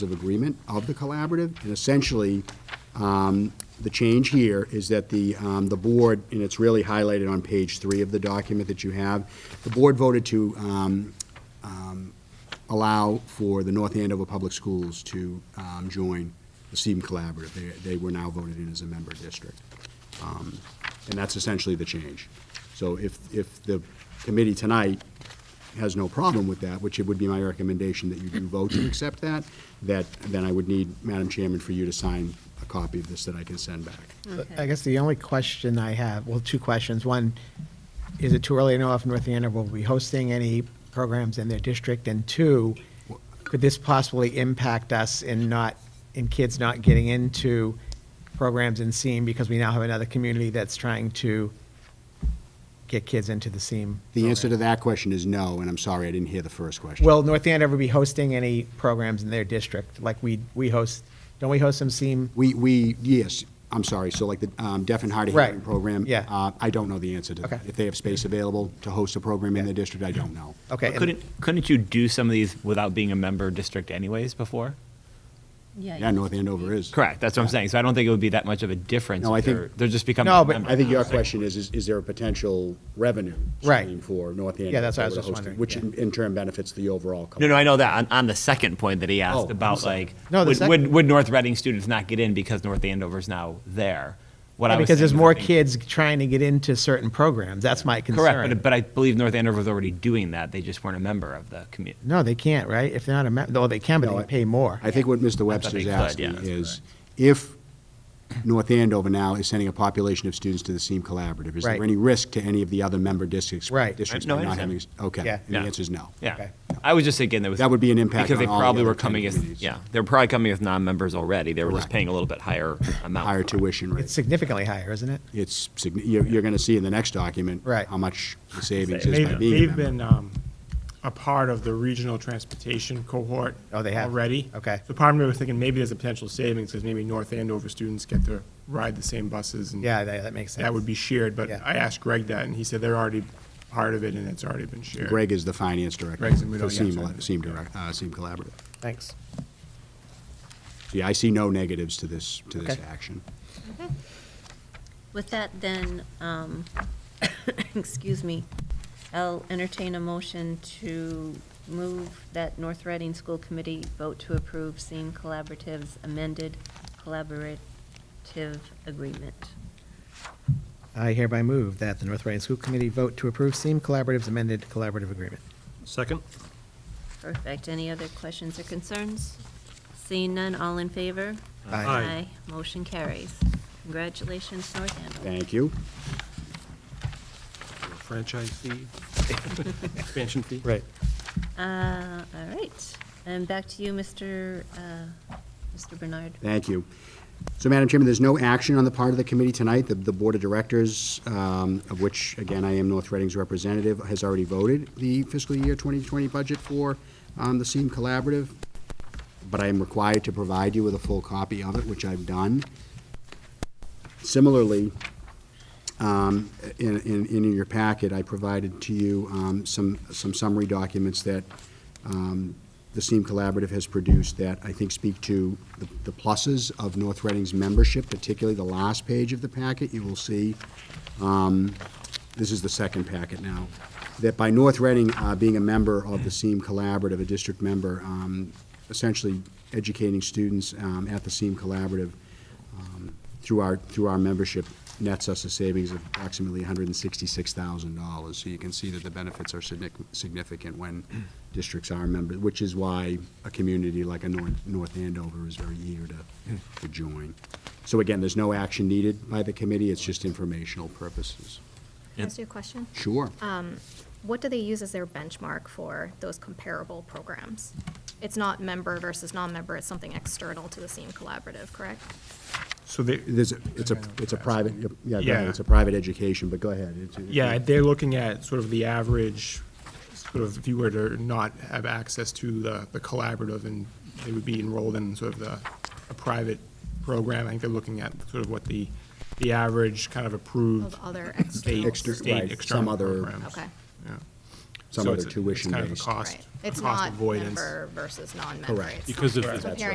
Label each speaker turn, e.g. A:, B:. A: of agreement of the collaborative, and essentially, um, the change here is that the, um, the board, and it's really highlighted on page three of the document that you have, the board voted to um, um, allow for the North Andover Public Schools to um, join the SEEM Collaborative. They, they were now voted in as a member district. Um, And that's essentially the change. So if, if the committee tonight has no problem with that, which it would be my recommendation that you do vote to accept that, that, then I would need, Madam Chairman, for you to sign a copy of this that I can send back.
B: I guess the only question I have, well, two questions. One, is it too early to know if North Andover will be hosting any programs in their district? And two, could this possibly impact us in not, in kids not getting into programs in SEAM because we now have another community that's trying to get kids into the SEAM?
A: The answer to
B: program?
A: that question is no, and I'm sorry, I didn't hear the first question.
B: Will North Andover be hosting any programs in their district? Like we, we host, don't we host some SEAM?
A: We, we, yes, I'm sorry, so like the um, deaf and hard of hearing
B: Right,
A: program?
B: yeah.
A: uh, I don't know the answer to that.
B: Okay.
A: If they have space available to host a program in the district, I don't know.
B: Okay. and-
C: Couldn't, couldn't you do some of these without being a member district anyways before?
A: Yeah, North Andover is.
C: Correct, that's what I'm saying. So I don't think it would be that much of a difference.
A: No, I
C: if
A: think-
C: They're they're just becoming
B: No,
C: a
B: but-
C: member.
A: I think your question is, is is there a potential revenue
B: Right.
A: stream for North Andover?
B: that's what I was
A: to
B: just
A: host it,
B: wondering,
A: Which
B: yeah.
A: in in turn benefits the overall.
C: No, no, I know that. On, on the second point that he
A: Oh, I'm
C: asked about
A: sorry.
C: like,
B: No, the
C: would,
B: sec-
C: would, would North Reading students not get in because North Andover's now there? What I was
B: Because there's
C: saying is I
B: more
C: think-
B: kids trying to get into certain programs. That's my concern.
C: Correct, but, but I believe North Andover was already doing that. They just weren't a member of the community.
B: No, they can't, right? If they're not a member, oh, they can, but
A: No,
B: they
A: I-
B: pay more.
A: I think what Mr.
C: they
A: Webster's
C: could, yeah,
A: asking
C: that's
A: is, if North Andover now is sending a population of students to the SEEM Collaborative, is there
B: Right.
A: any risk to any of the other member districts?
B: Right.
A: Districts
C: No, I
A: by not having,
C: understand.
A: okay,
B: Yeah.
A: and the
C: Yeah.
A: answer is no.
C: Yeah.
B: Okay.
C: I was just thinking that was.
A: That would be an impact
C: Because they
A: on all the
C: probably
A: other
C: were
A: ten
C: coming as,
A: communities.
C: yeah, they were probably coming with non-members already. They were just
A: Correct.
C: paying a little bit higher amount.
A: Higher
C: for it.
A: tuition
B: It's
A: rates.
B: significantly higher, isn't it?
A: It's, signi- you're, you're gonna see in the next document.
B: Right.
A: How much the savings is by
D: They've,
A: being a
D: they've
A: member.
D: been um, a part of the regional transportation cohort.
B: Oh, they have?
D: Already.
B: Okay.
D: So part of me was thinking maybe there's a potential savings because maybe North Andover students get to ride the same buses and
B: Yeah, that, that makes sense.
D: that would be shared, but
B: Yeah.
D: I asked Greg that and he said they're already part of it and it's already been shared.
A: Greg is the finance director
D: Greg's in Rudolph,
A: for
D: yeah,
A: SEEM,
D: sorry.
A: ele- SEEM direct, uh, SEEM Collaborative.
B: Thanks.
A: Yeah, I see no negatives to this, to this
B: Okay.
A: action.
E: With that, then, um, excuse me, I'll entertain a motion to move that North Reading School Committee vote to approve SEEM Collaborative's amended collaborative agreement.
B: I hereby move that the North Reading School Committee vote to approve SEEM Collaborative's amended collaborative agreement.
F: Second?
E: Perfect. Any other questions or concerns? Seeing none, all in favor?
F: Aye.
B: Aye.
E: Motion carries. Congratulations, North Andover.
A: Thank you.
F: Franchise fee? Expansion fee?
B: Right.
E: Uh, all right. And back to you, Mr., uh, Mr. Bernard.
A: Thank you. So, Madam Chairman, there's no action on the part of the committee tonight. The, the Board of Directors, um, of which, again, I am North Reading's representative, has already voted the fiscal year 2020 budget for um, the SEEM Collaborative, but I am required to provide you with a full copy of it, which I've done. Similarly, um, in, in, in your packet, I provided to you um, some, some summary documents that um, the SEEM Collaborative has produced that I think speak to the- the pluses of North Reading's membership, particularly the last page of the packet. You will see um, this is the second packet now, that by North Reading uh, being a member of the SEEM Collaborative, a district member, um, essentially educating students um, at the SEEM Collaborative um, through our, through our membership nets us a savings of approximately $166,000. So you can see that the benefits are signic- significant when districts are members, which is why a community like a North North Andover is very eager to, to join. So again, there's no action needed by the committee, it's just informational purposes.
G: Can I ask you a question?
A: Sure.
G: What do they use as their benchmark for those comparable programs? It's not member versus non-member, it's something external to the same collaborative, correct?
D: So they,
A: There's, a- it's a, it's a private, yeah, go ahead,
D: Yeah.
A: it's a private education, but go ahead. It's- it's-
D: yeah, they're looking at sort of the average, sort of if you were to not have access to the, the collaborative and they would be enrolled in sort of the, a private program, I think they're looking at sort of what the, the average kind of approved
G: Of other
D: state,
G: external.
A: Exter- right,
D: state
A: some
D: external
A: other-
D: programs.
G: Okay.
D: Yeah.
H: some
A: So
H: other
A: it's a- it's kind of a
H: tuition-based.
A: cost-
D: Right. It's
A: cost
D: not
A: avoidance.
D: member versus non-member.
H: Correct.
D: It's
G: Because of the-
D: comparing